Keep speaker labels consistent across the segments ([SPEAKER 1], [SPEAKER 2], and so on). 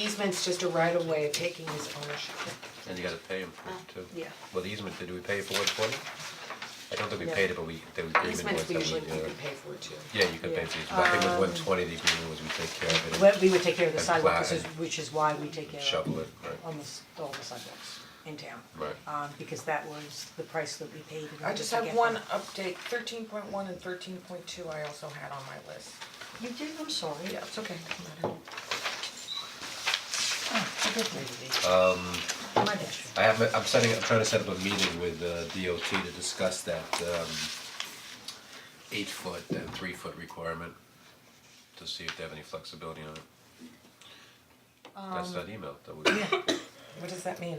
[SPEAKER 1] easement's just a right of way of taking his ownership.
[SPEAKER 2] And you gotta pay him for it too.
[SPEAKER 1] Oh, yeah.
[SPEAKER 2] Well, the easement, did we pay for one twenty? I don't think we
[SPEAKER 1] No.
[SPEAKER 2] paid it, but we, the agreement was that we, uh.
[SPEAKER 1] Easements we usually, we could pay Um, for too.
[SPEAKER 2] Yeah, you could pay for the easement, I think it was one twenty, the agreement was we take care of it. and
[SPEAKER 3] Well, we would take care of the
[SPEAKER 2] And
[SPEAKER 3] sidewalk,
[SPEAKER 2] plat
[SPEAKER 3] which is,
[SPEAKER 2] and
[SPEAKER 3] which is why we take care of
[SPEAKER 2] Shovel it, right,
[SPEAKER 3] almost all the sidewalks in town.
[SPEAKER 2] right.
[SPEAKER 3] Um, because that was the price that we paid in order to get
[SPEAKER 1] I just have one
[SPEAKER 3] them.
[SPEAKER 1] update, thirteen point one and thirteen point two I also had on my list.
[SPEAKER 3] You did, I'm sorry.
[SPEAKER 1] Yeah, it's okay, doesn't matter.
[SPEAKER 3] I did read these.
[SPEAKER 2] Uh,
[SPEAKER 3] My bad.
[SPEAKER 2] I have, I'm setting, I'm trying to set up a meeting with uh, DOT to discuss that um eight foot and three foot requirement to see if they have any flexibility on it.
[SPEAKER 1] Um,
[SPEAKER 2] That's that email that we.
[SPEAKER 1] What does that mean?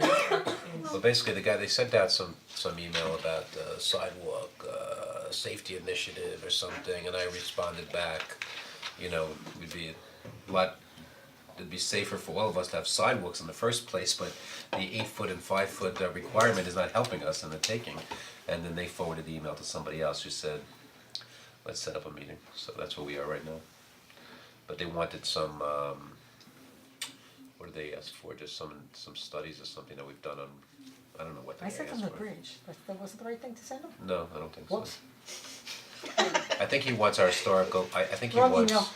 [SPEAKER 2] Well, basically, the guy, they sent out some, some email about uh sidewalk, uh, safety initiative or something, and I responded back, you know, would be a lot, it'd be safer for all of us to have sidewalks in the first place, but the eight foot and five foot uh, requirement is not helping us in the taking. And then they forwarded the email to somebody else who said, let's set up a meeting, so that's where we are right now. But they wanted some, um, what did they ask for, just some, some studies or something that we've done on, I don't know what they
[SPEAKER 3] I
[SPEAKER 2] asked for.
[SPEAKER 3] sent them the bridge, that, that wasn't the right thing to send them.
[SPEAKER 2] No, I don't think so.
[SPEAKER 3] Whoops.
[SPEAKER 2] I think he wants our historical, I I think he
[SPEAKER 3] Wrong
[SPEAKER 2] wants,
[SPEAKER 3] email.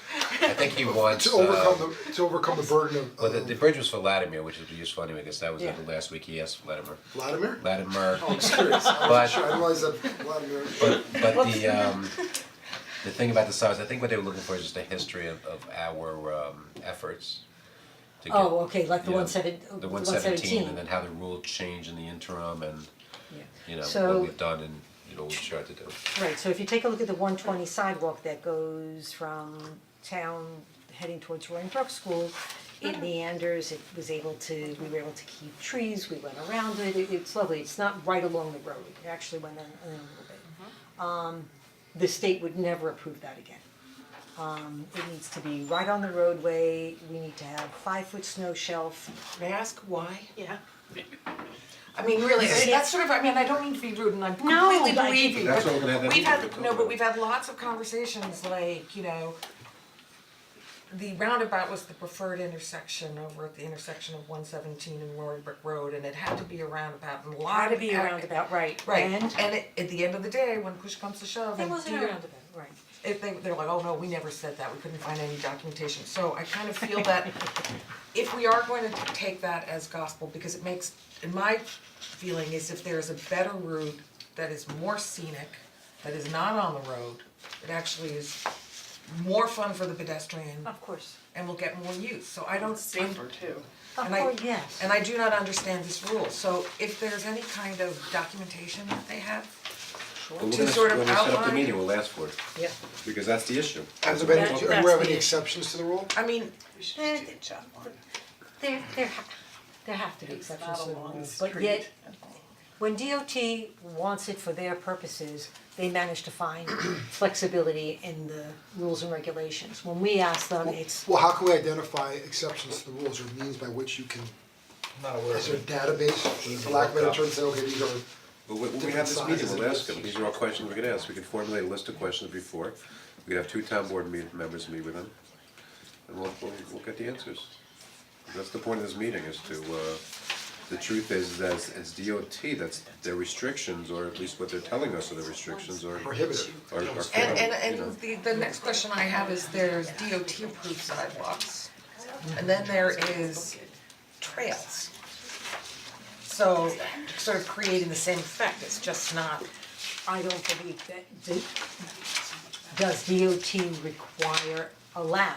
[SPEAKER 2] I think he wants,
[SPEAKER 4] To
[SPEAKER 2] uh,
[SPEAKER 4] overcome the, to overcome the burden of
[SPEAKER 2] well, the
[SPEAKER 4] of
[SPEAKER 2] the bridge was for Latimer, which is useful anyway, because that was
[SPEAKER 3] Yeah.
[SPEAKER 2] the last week he asked Latimer.
[SPEAKER 4] Vladimir?
[SPEAKER 2] Latimer,
[SPEAKER 4] Oh, I'm serious, I
[SPEAKER 2] But-
[SPEAKER 4] wasn't sure, I didn't realize that Vladimir.
[SPEAKER 2] but but the um, the thing about the size, I think what they were looking for is just a history of of our um efforts to get.
[SPEAKER 3] Oh, okay, like
[SPEAKER 2] you
[SPEAKER 3] the
[SPEAKER 2] know,
[SPEAKER 3] one seven,
[SPEAKER 2] The one
[SPEAKER 3] one
[SPEAKER 2] seventeen, and then how the rule changed in the interim and, you know,
[SPEAKER 3] So-
[SPEAKER 2] what we've done and, you know, what we tried to do.
[SPEAKER 3] Right, so if you take a look at the one twenty sidewalk that goes from town heading towards Roaring Brook School, it meanders, it was able to, we were able to keep trees, we went around it, it- it's lovely, it's not right along the road, it actually went in in a little bit. Um, the state would never approve that again. Um, it needs to be right on the roadway, we need to have five-foot snow shelf,
[SPEAKER 1] May I ask why?
[SPEAKER 3] Yeah.
[SPEAKER 1] I mean, really, I mean, that's sort of, I mean, I don't mean to be rude and I
[SPEAKER 3] No,
[SPEAKER 1] completely
[SPEAKER 3] but I
[SPEAKER 1] believe
[SPEAKER 3] think-
[SPEAKER 1] you,
[SPEAKER 2] That's why we're gonna have
[SPEAKER 1] but
[SPEAKER 2] that
[SPEAKER 1] we've
[SPEAKER 2] meeting
[SPEAKER 1] had,
[SPEAKER 2] we
[SPEAKER 1] no,
[SPEAKER 2] talked
[SPEAKER 1] but we've had lots of conversations like, you know, the roundabout was the preferred intersection over at the intersection of one seventeen and Roaring Brook Road and it had to be a roundabout and a lot of.
[SPEAKER 3] ought to be a
[SPEAKER 1] ac-
[SPEAKER 3] roundabout, right,
[SPEAKER 1] Right,
[SPEAKER 3] and.
[SPEAKER 1] and it, at the end of the day, when push comes to shove
[SPEAKER 3] It
[SPEAKER 1] and
[SPEAKER 3] wasn't
[SPEAKER 1] do
[SPEAKER 3] a
[SPEAKER 1] your-
[SPEAKER 3] roundabout, right.
[SPEAKER 1] if they they're like, oh no, we never said that, we couldn't find any documentation, so I kind of feel that if we are going to take that as gospel, because it makes, in my feeling is if there's a better route that is more scenic, that is not on the road, it actually is more fun for the pedestrian
[SPEAKER 3] Of course.
[SPEAKER 1] and will get more use, so I don't see.
[SPEAKER 5] too.
[SPEAKER 3] Of
[SPEAKER 1] And I,
[SPEAKER 3] course, yes.
[SPEAKER 1] and I do not understand this rule, so if there's any kind of documentation that they have,
[SPEAKER 2] But
[SPEAKER 1] To sort of
[SPEAKER 2] When we set up the
[SPEAKER 1] outline-
[SPEAKER 2] meeting, we'll ask for it,
[SPEAKER 3] Yeah.
[SPEAKER 2] because that's the issue.
[SPEAKER 4] Has there been,
[SPEAKER 3] That-
[SPEAKER 4] any- do we
[SPEAKER 3] that's
[SPEAKER 4] have
[SPEAKER 3] the
[SPEAKER 4] any
[SPEAKER 3] issue.
[SPEAKER 4] exceptions to the rule?
[SPEAKER 1] I mean,
[SPEAKER 3] There, there, ha- there have to be exceptions
[SPEAKER 5] not
[SPEAKER 3] to the
[SPEAKER 5] along the
[SPEAKER 3] rules, but yet, when DOT wants it for their purposes, they manage to find flexibility in the rules and regulations. When we ask them, it's,
[SPEAKER 4] Well, how can we identify exceptions to the rules or means by which you can,
[SPEAKER 2] Not aware
[SPEAKER 4] is there a database, for lack of a better term, say, okay, these are,
[SPEAKER 2] But when when we have this meeting, we'll ask them, these are all questions we can ask, we can formulate a list of questions before, we could have two town board me- members meet with them. And we'll, we'll, we'll get the answers. That's the point of this meeting, is to, uh, the truth is, that it's- it's DOT, that's their restrictions, or at least what they're telling us are the restrictions, or.
[SPEAKER 4] Prohibitive.
[SPEAKER 2] Or, or.
[SPEAKER 1] And
[SPEAKER 2] you
[SPEAKER 1] and
[SPEAKER 2] know.
[SPEAKER 1] and the the next question I have is there's DOT approved sidewalks. And then there is trails. So sort of creating the same effect, it's just not,
[SPEAKER 3] I don't believe that, the- does DOT require, allow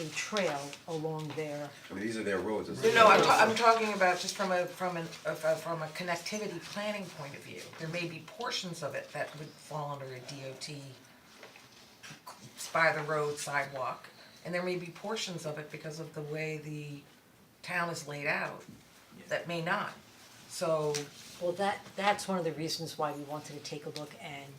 [SPEAKER 3] a trail along their,
[SPEAKER 2] I mean, these are their roads, it's.
[SPEAKER 1] no, no, I'm ta- I'm talking about just from a from an of a- from a connectivity planning point of view. There may be portions of it that would fall under a DOT by the road sidewalk. And there may be portions of it because of the way the town is laid out that may not. So
[SPEAKER 3] well, that, that's one of the reasons why we wanted to take a look and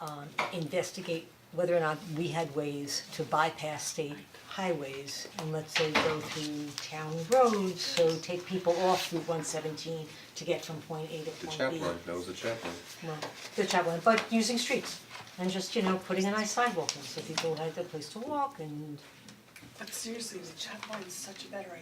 [SPEAKER 3] um, investigate whether or not we had ways to bypass state highways and let's say go through town roads, so take people off Route one seventeen to get from point A to
[SPEAKER 2] The
[SPEAKER 3] point B.
[SPEAKER 2] chaplain, that was the chaplain.
[SPEAKER 3] Well, the chaplain, but using streets and just, you know, putting a nice sidewalk in so people had a place to walk and
[SPEAKER 5] But seriously, the checkpoint's such a better